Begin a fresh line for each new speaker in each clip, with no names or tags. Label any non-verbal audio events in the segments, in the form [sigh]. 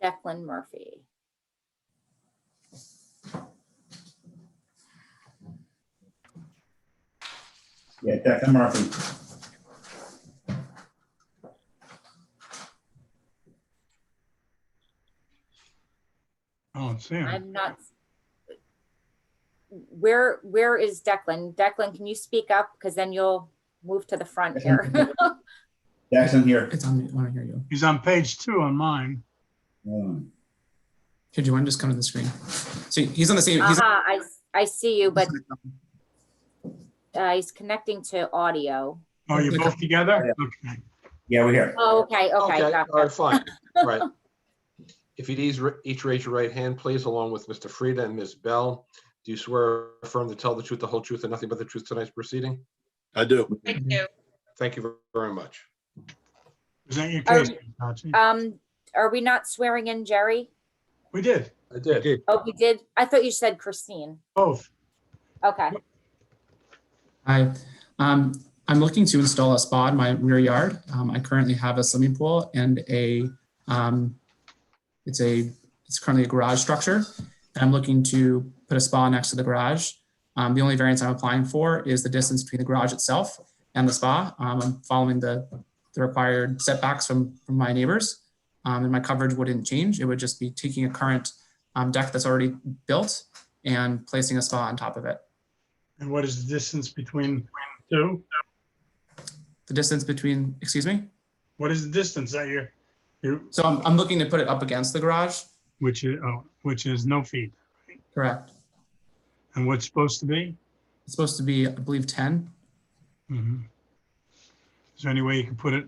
Declan Murphy.
Yeah, Declan Murphy.
I don't see Oh, him.
I'm not. Where, where is Declan? Declan, can you speak up? Because then you'll move to the front here.
Declan here.
It's on me. I want to hear you.
He's on page two on mine.
Um,
Here, do you want to just come to the screen? So he's on the same. He's,
Aha, Uh, I, I see you, Uh-huh, but uh, he's connecting to audio.
Are Oh, you both together? Okay.
Yeah, we're here.
Oh, okay, okay,
All right,
gotcha. [laughs]
fine, right. If you'd ease- each raise your right hand, please, along with Mr. Frieda and Ms. Bell, do you swear or affirm to tell the truth, the whole truth, and nothing but the truth tonight's proceeding?
I do.
I do.
Thank you very much.
Is that your
Are-
case? Nachi?
Um, are we not swearing in Jerry?
We did,
I did.
Oh, we did? I thought you said Christine.
both.
Okay,
I, um, I'm looking to install a spa in my rear yard. Um, I currently have a swimming pool and a, um, it's a, it's currently a garage structure. And I'm looking to put a spa next to the garage. Um, the only variance I'm applying for is the distance between the garage itself and the spa. Um, I'm following the, the required setbacks from, from my neighbors. Um, and my coverage wouldn't change. It would just be taking a current, um, deck that's already built and placing a spa on top of it.
And what is the distance between two?
The distance between, excuse me?
What is the distance that you're, you,
So I'm, I'm looking to put it up against the garage,
which is, oh, which is no feet?
correct?
And what's supposed to be?
It's supposed to be, I believe, ten.
Mhm. Is there any way you can put it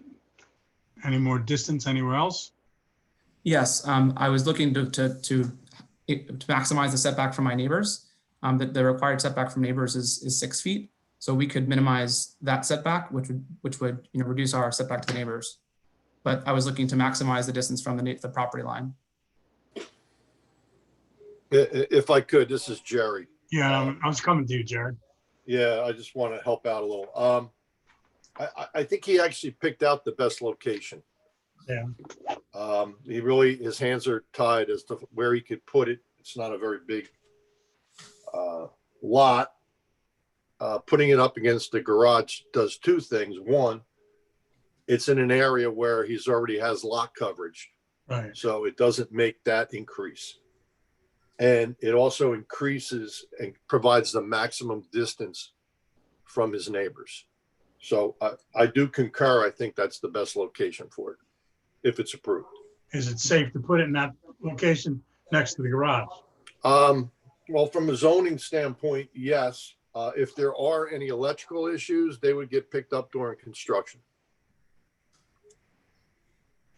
any more distance anywhere else?
Yes, um, I was looking to, to, to it- to maximize the setback from my neighbors. Um, the, the required setback from neighbors is, is six feet. So we could minimize that setback, which would, which would, you know, reduce our setback to the neighbors. But I was looking to maximize the distance from the, na- the property line.
I- i- If I could, this is Jerry.
Yeah, I'm- I was coming to you, Jared.
Yeah, I just want to help out a little. Um, I, I, I think he actually picked out the best location.
Yeah.
Um, he really, his hands are tied as to where he could put it. It's not a very big uh, lot. Uh, putting it up against the garage does two things. One, it's in an area where he's already has lot coverage.
Right,
So it doesn't make that increase. And it also increases and provides the maximum distance from his neighbors. So I, I do concur. I think that's the best location for it, if it's approved.
is it safe to put it in that location next to the garage?
Um, well, from a zoning standpoint, yes. Uh, if there are any electrical issues, they would get picked up during construction.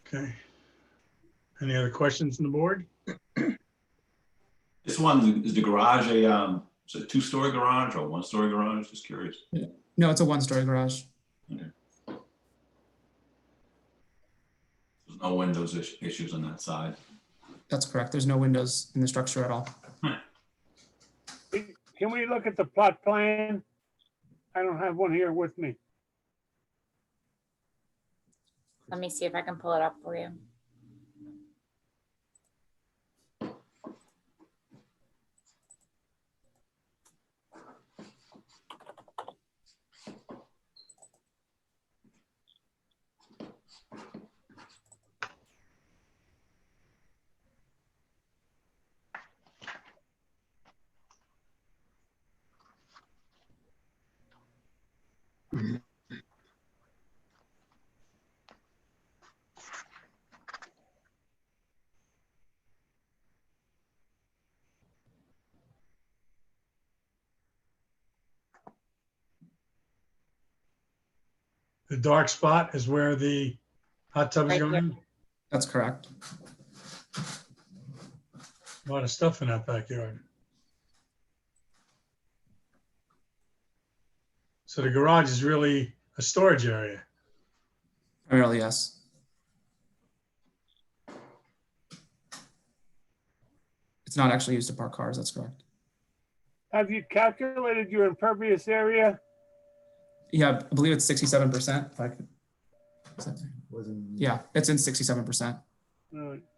Okay. Any other questions from the board?
This one, is the garage a, um, is it a two-story garage or one-story garage? Just curious.
No, it's a one-story garage.
There's no windows is- issues on that side.
That's correct. There's no windows in the structure at all.
Can we look at the plot plan? I don't have one here with me.
let me see if I can pull it up for you.
The dark spot is where the hot tub is
Right
going.
here.
in?
That's correct.
A Lot of stuff in that backyard. So the garage is really a storage area.
Primarily, yes. It's not actually used to park cars. That's correct.
Have you calculated your impervious area?
Yeah, I believe it's sixty-seven percent. If I could. Yeah, it's in sixty-seven percent.
All right.